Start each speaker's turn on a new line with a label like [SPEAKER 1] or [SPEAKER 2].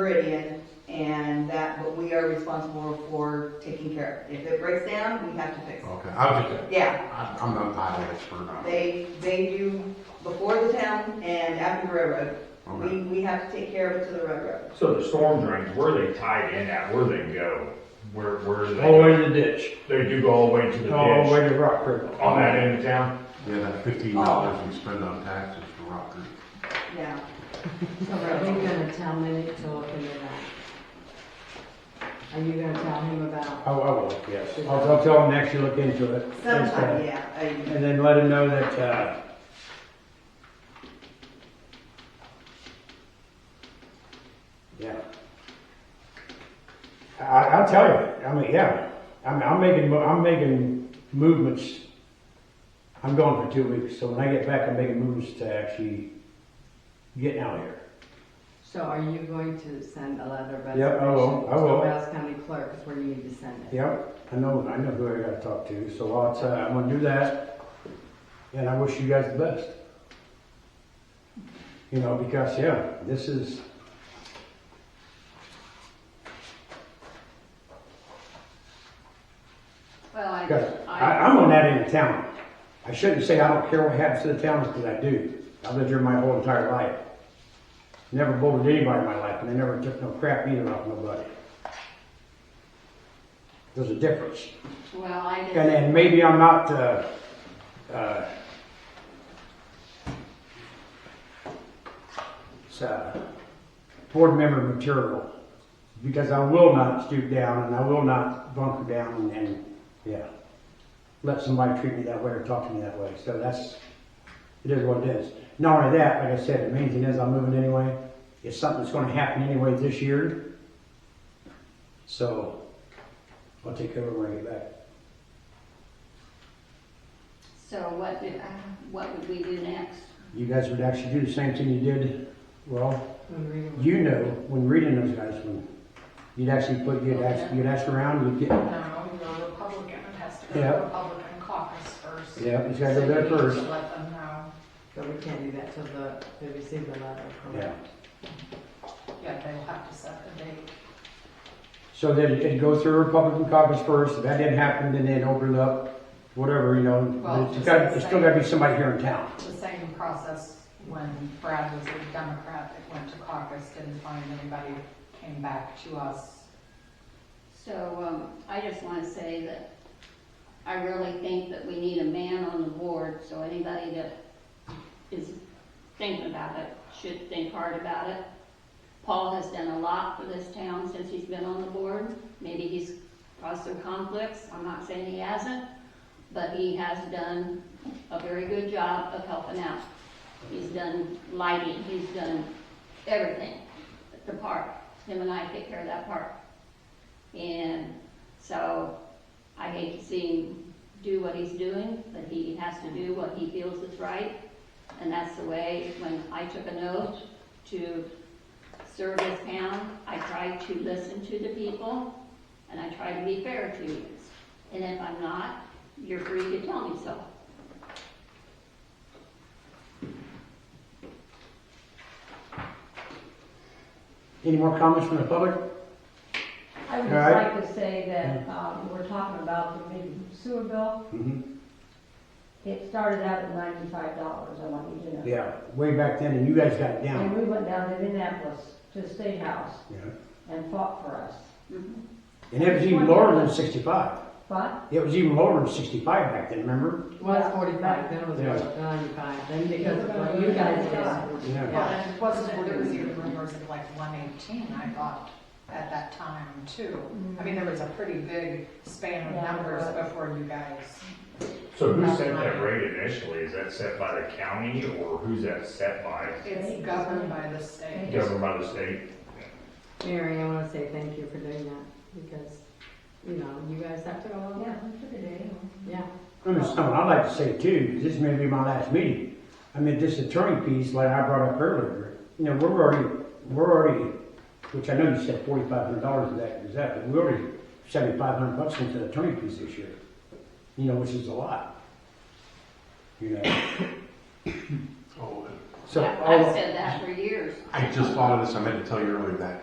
[SPEAKER 1] Meridian, and that, but we are responsible for taking care of it. If it breaks down, we have to fix
[SPEAKER 2] Okay, I'm just,
[SPEAKER 1] it. Yeah,
[SPEAKER 2] I- I'm not highway expert on it.
[SPEAKER 1] they, they do before the town and after the railroad.
[SPEAKER 2] Okay.
[SPEAKER 1] We, we have to take care of it to the railroad.
[SPEAKER 3] So the storm drains, where are they tied in at, where do they go? Where, where do they?
[SPEAKER 4] all the way
[SPEAKER 3] go?
[SPEAKER 4] to the ditch,
[SPEAKER 3] They do go all the way to the ditch, Oh,
[SPEAKER 4] all the
[SPEAKER 3] on
[SPEAKER 4] way to Rock Creek.
[SPEAKER 3] that end of town?
[SPEAKER 2] Yeah, that fifteen dollars we spend on taxes for Rock Creek.
[SPEAKER 1] Yeah.
[SPEAKER 5] So are you gonna tell me to look into that? Are you gonna tell him about?
[SPEAKER 4] Oh, I will, yes. I'll, I'll tell him next you look into it.
[SPEAKER 1] Sometime, yeah. I-
[SPEAKER 4] And then let him know that, uh, yeah. I, I'll tell you, I mean, yeah, I'm, I'm making, mo- I'm making movements. I'm gone for two weeks, so when I get back, I'm making movements to actually get out of here.
[SPEAKER 5] So are you going to send a letter of
[SPEAKER 4] Yeah, I will,
[SPEAKER 5] resignation
[SPEAKER 4] I will.
[SPEAKER 5] to Rouse County Clerk is where you need to send it?
[SPEAKER 4] Yep, I know, I know who I gotta talk to, so I'll, tell- I'm gonna do that, and I wish you guys the best. You know, because, yeah, this is.
[SPEAKER 6] Well, I,
[SPEAKER 4] Because I,
[SPEAKER 6] I,
[SPEAKER 4] I'm on that end of town. I shouldn't say I don't care what happens to the town, because I do. I've lived here my whole entire life. Never bullied anybody in my life, and I never took no crap either off nobody. There's a difference.
[SPEAKER 6] well, I
[SPEAKER 4] And,
[SPEAKER 6] didn't,
[SPEAKER 4] and maybe I'm not, uh, uh, it's, uh, board member material, because I will not stoop down and I will not bunker down and, and, yeah, let somebody treat me that way or talk to me that way, so that's, it is what it is. Not only that, like I said, the main thing is I'm moving anyway, it's something that's gonna happen anyway this year, so I'll take care of it when I get back.
[SPEAKER 6] so what, do- uh, what would we do next?
[SPEAKER 4] you guys would actually do the same thing you did, well,
[SPEAKER 5] When we-
[SPEAKER 4] you know, when reading those guys, when you'd actually put, you'd ask, you'd ask around, you'd get,
[SPEAKER 7] No, you're a Republican, it has to go
[SPEAKER 4] Yeah.
[SPEAKER 7] to Republican caucus first.
[SPEAKER 4] yeah, it's gotta go there
[SPEAKER 7] So you need to
[SPEAKER 4] first.
[SPEAKER 7] Let them know,
[SPEAKER 5] But we can't do that till the, they receive the letter,
[SPEAKER 4] Yeah,
[SPEAKER 5] correct?
[SPEAKER 7] yeah, they will have to set the date.
[SPEAKER 4] so then it'd go through Republican caucus first, if that didn't happen, then they'd open it up, whatever, you
[SPEAKER 7] Well,
[SPEAKER 4] know, it's
[SPEAKER 7] just
[SPEAKER 4] gotta,
[SPEAKER 7] the
[SPEAKER 4] it's still
[SPEAKER 7] same.
[SPEAKER 4] gotta be somebody here in town.
[SPEAKER 7] The same process when Brad was a Democrat, it went to caucus, didn't find anybody, came back to us.
[SPEAKER 6] So, um, I just wanna say that I really think that we need a man on the board, so anybody that is thinking about it should think hard about it. Paul has done a lot for this town since he's been on the board. Maybe he's caused some conflicts, I'm not saying he hasn't, but he has done a very good job of helping out. He's done lighting, he's done everything at the park. Him and I take care of that park. And so I hate to see him do what he's doing, but he has to do what he feels is right. And that's the way, when I took an oath to serve this town, I tried to listen to the people and I tried to be fair to you. And if I'm not, you're free to tell me so.
[SPEAKER 4] Any more comments from the public?
[SPEAKER 8] I
[SPEAKER 4] All
[SPEAKER 8] would just
[SPEAKER 4] right.
[SPEAKER 8] like to say that, um, we're talking about the big sewer bill.
[SPEAKER 4] Mhm.
[SPEAKER 8] It started out at ninety-five dollars, I want you to know.
[SPEAKER 4] Yeah, way back then, and you guys got it
[SPEAKER 8] And
[SPEAKER 4] down,
[SPEAKER 8] we went down to Indianapolis to the State House
[SPEAKER 7] Mm-hmm.
[SPEAKER 4] yeah,
[SPEAKER 8] and fought for us.
[SPEAKER 4] and it was even lower than sixty-five,
[SPEAKER 8] But
[SPEAKER 4] it was even lower than sixty-five back then, remember?
[SPEAKER 5] It was forty-five, then it was
[SPEAKER 4] Yeah.
[SPEAKER 5] ninety-five, then because of what you guys did.
[SPEAKER 4] Yeah.
[SPEAKER 5] Yeah.
[SPEAKER 7] Well, it wasn't, there was even rumors of like one eighteen, I thought, at that time too. I mean, there was a pretty big span of
[SPEAKER 8] Yeah.
[SPEAKER 7] numbers before you guys.
[SPEAKER 3] So who set that rate initially, is that set by the county, or who's that set by?
[SPEAKER 7] It's governed by the state.
[SPEAKER 3] Governed by the state?
[SPEAKER 5] Mary, I wanna say thank you for doing that, because, you know, you guys have to go along.
[SPEAKER 8] Yeah, we took a day.
[SPEAKER 5] Yeah.
[SPEAKER 4] I mean, something I'd like to say too, this may be my last meeting. I mean, this attorney piece, like I brought up earlier, you know, we're already, we're already, which I know you said forty-five hundred dollars of that, is that, but we already seventy-five hundred bucks into the attorney piece this year. You know, which is a lot. You know,
[SPEAKER 2] Oh,
[SPEAKER 4] so,
[SPEAKER 6] I- I've
[SPEAKER 4] all-
[SPEAKER 6] said that for years.
[SPEAKER 2] I just thought of this, I meant to tell you earlier, that